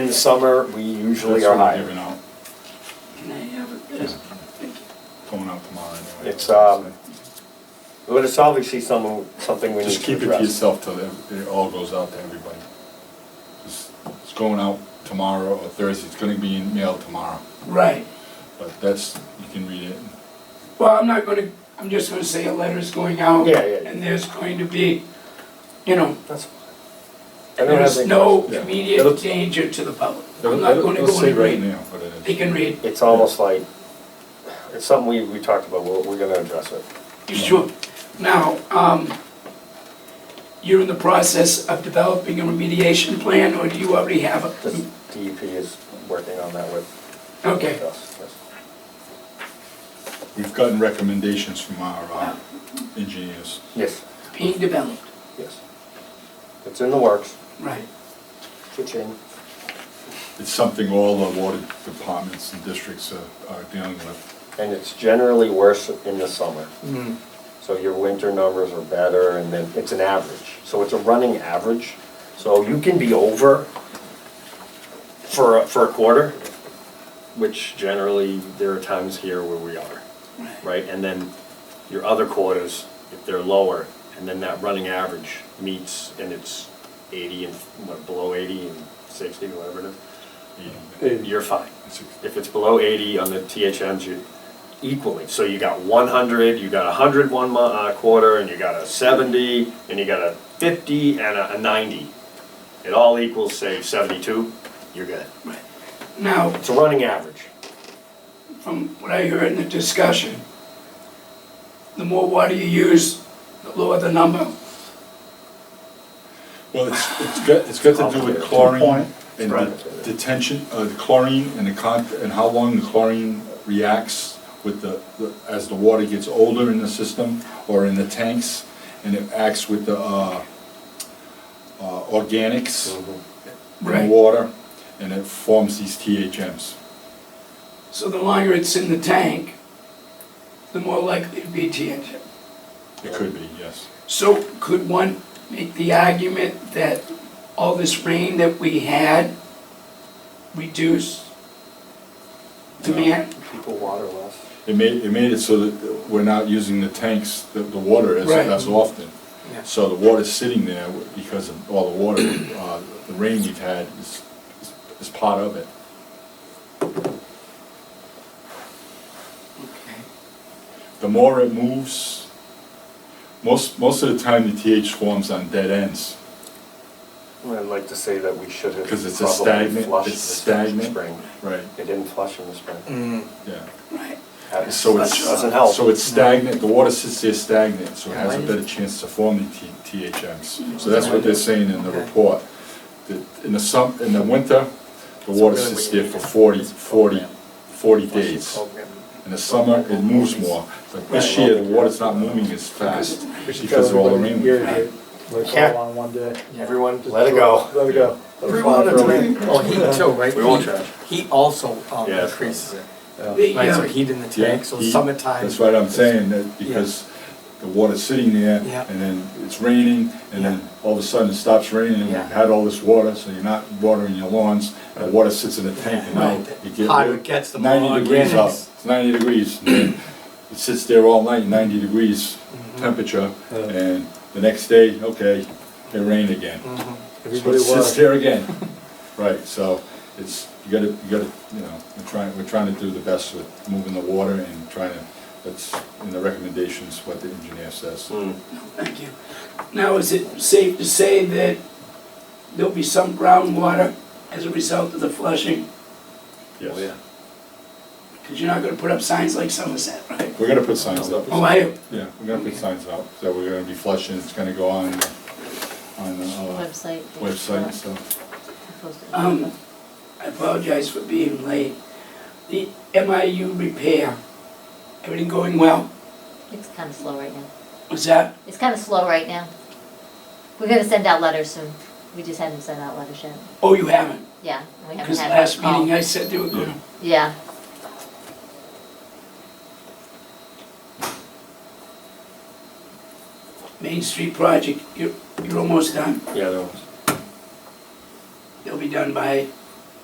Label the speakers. Speaker 1: the summer, we usually
Speaker 2: That's
Speaker 1: are
Speaker 2: what we're
Speaker 1: higher.
Speaker 2: giving out,
Speaker 3: Can I have it? Yes. Thank you.
Speaker 2: going out tomorrow anyway.
Speaker 1: It's, um, But it's obviously some, something we need
Speaker 2: Just
Speaker 1: to
Speaker 2: keep it to
Speaker 1: address.
Speaker 2: yourself till it it all goes out to everybody. Just- It's going out tomorrow or Thursday, it's gonna be in mail tomorrow,
Speaker 3: Right.
Speaker 2: but that's, you can read it.
Speaker 3: Well, I'm not gonna, I'm just gonna say a letter's going out.
Speaker 1: Yeah, yeah.
Speaker 3: And there's going to be, you know,
Speaker 1: That's fine. I don't have
Speaker 3: there's
Speaker 1: any-
Speaker 3: no
Speaker 2: Yeah.
Speaker 3: immediate
Speaker 2: It'll-
Speaker 3: danger to the public.
Speaker 2: It'll-
Speaker 3: I'm not
Speaker 2: it'll-
Speaker 3: gonna
Speaker 2: it'll
Speaker 3: go
Speaker 2: say
Speaker 3: and
Speaker 2: right
Speaker 3: read.
Speaker 2: now what it is.
Speaker 3: They can read.
Speaker 1: It's almost like, it's something we, we talked about, we're, we're gonna address it.
Speaker 3: You Sure. Now, um, you're in the process of developing a remediation plan, or do you already have
Speaker 1: This
Speaker 3: a?
Speaker 1: DEP E is working on that with
Speaker 3: Mm. Okay.
Speaker 1: us. yes.
Speaker 2: We've gotten recommendations from our uh, engineers.
Speaker 1: Yes,
Speaker 3: being developed,
Speaker 1: yes. It's in the works,
Speaker 3: right.
Speaker 1: cha-ching.
Speaker 2: It's something all the water departments and districts are- are dealing with.
Speaker 1: And it's generally worse in the summer. So your winter numbers are better, and then it's an average. So it's a running average. So you can be over for, a- for a quarter, which generally, there are times here where we are, right? And then your other quarters, if they're lower, and then that running average meets, and it's 80 and, what, below 80 and 60, whatever it is you're fine. If it's below 80 on the THMs, you're equally. So you got 100, you got 100 one mo- uh, quarter, and you got a 70, and you got a 50 and a a 90. It all equals, say, 72, you're good.
Speaker 3: Right. Now,
Speaker 1: It's a running average.
Speaker 3: from what I heard in the discussion, the more water you use, the lower the number.
Speaker 2: Well, it's, it's got, it's got to do with chlorine and the detention, uh, the chlorine and the con, and how long the chlorine reacts with the, the- as the water gets older in the system or in the tanks, and it acts with the, uh, uh, organics
Speaker 3: Right.
Speaker 2: in water, and it forms these THMs.
Speaker 3: So the longer it's in the tank, the more likely it'd be TNT.
Speaker 2: It could be, yes.
Speaker 3: So could one make the argument that all this rain that we had reduced demand?
Speaker 1: People water less.
Speaker 2: It made, it made it so that we're not using the tanks, the, the water as,
Speaker 3: Right.
Speaker 2: as often.
Speaker 3: Yeah.
Speaker 2: So the water's sitting there because of all the water, uh, the rain we've had is, is- is part of it.
Speaker 3: Okay.
Speaker 2: The more it moves, most, most of the time the TH forms on dead ends.
Speaker 1: I'd like to say that we should have
Speaker 2: 'Cause it's a
Speaker 1: probably
Speaker 2: stagnant-
Speaker 1: flushed
Speaker 2: it's
Speaker 1: this
Speaker 2: stagnant.
Speaker 1: spring.
Speaker 2: Right.
Speaker 1: They didn't flush in the spring.
Speaker 2: Yeah.
Speaker 3: Right.
Speaker 1: Happens.
Speaker 2: So it's,
Speaker 1: Doesn't help.
Speaker 2: so it's stagnant, the water sits there stagnant, so it has a
Speaker 4: Why
Speaker 2: better
Speaker 4: is-
Speaker 2: chance to form the T- THMs. So that's what they're saying in the report. that In the sum, in the winter, the water sits there for 40, 40, 40 days. In the summer, it moves more, but this year, the water's not moving as fast because of all the rain. we've had.
Speaker 5: Let's
Speaker 1: Yeah.
Speaker 5: all on one day.
Speaker 1: Everyone, let it go.
Speaker 5: Let it go. Let it fly for a week.
Speaker 4: Oh, heat too, right?
Speaker 1: We won't
Speaker 4: Heat-
Speaker 1: charge.
Speaker 4: Heat also um,
Speaker 1: Yeah.
Speaker 4: increases it.
Speaker 3: The,
Speaker 4: Right, so
Speaker 3: uh,
Speaker 4: heat in the
Speaker 2: Yeah,
Speaker 4: tank, so
Speaker 2: heat.
Speaker 4: summertime.
Speaker 2: That's what I'm saying, that because the water's sitting there,
Speaker 4: Yeah.
Speaker 2: and then it's raining, and then all of a sudden it stops raining, and you've
Speaker 4: Yeah.
Speaker 2: had all this water, so you're not watering your lawns, and the water sits in the tank, and now
Speaker 4: Right.
Speaker 2: it gets.
Speaker 4: Hotter it gets, the more
Speaker 2: Ninety degrees out,
Speaker 4: organics.
Speaker 2: it's ninety degrees, and then it sits there all night, ninety degrees
Speaker 4: Mm-hmm.
Speaker 2: temperature,
Speaker 5: Yeah.
Speaker 2: and the next day, okay, it rained again.
Speaker 4: Mhm.
Speaker 2: So
Speaker 5: Everybody
Speaker 2: it sits
Speaker 5: was.
Speaker 2: there again, right, so it's, you gotta, you gotta, you know, we're trying, we're trying to do the best with moving the water and trying to, that's in the recommendations, what the engineer says.
Speaker 3: Oh,
Speaker 1: Mm.
Speaker 3: Thank you. Now, is it safe to say that there'll be some groundwater as a result of the flushing?
Speaker 1: Oh,
Speaker 2: Yes.
Speaker 3: Because you're not gonna put up signs like Somerset, right?
Speaker 2: We're gonna put signs up.
Speaker 3: Oh, I,
Speaker 2: Yeah, we're gonna put signs up, that we're gonna be flushing, it's gonna go on, on the uh,
Speaker 6: Website.
Speaker 2: website and stuff.
Speaker 3: um, I apologize for being late. The MIU repair, everything going well?
Speaker 6: It's kind of slow right now.
Speaker 3: Was that,
Speaker 6: It's kind of slow right now. We're gonna send out letters soon. We just haven't sent out letters yet.
Speaker 3: oh, you haven't?
Speaker 6: Yeah, we haven't
Speaker 3: Because
Speaker 6: had. Oh.
Speaker 3: last
Speaker 6: one call.
Speaker 3: meeting I said they were gonna.
Speaker 6: Yeah,
Speaker 3: Main Street project, you're, you're almost done.
Speaker 1: Yeah, there was.
Speaker 3: They'll be done by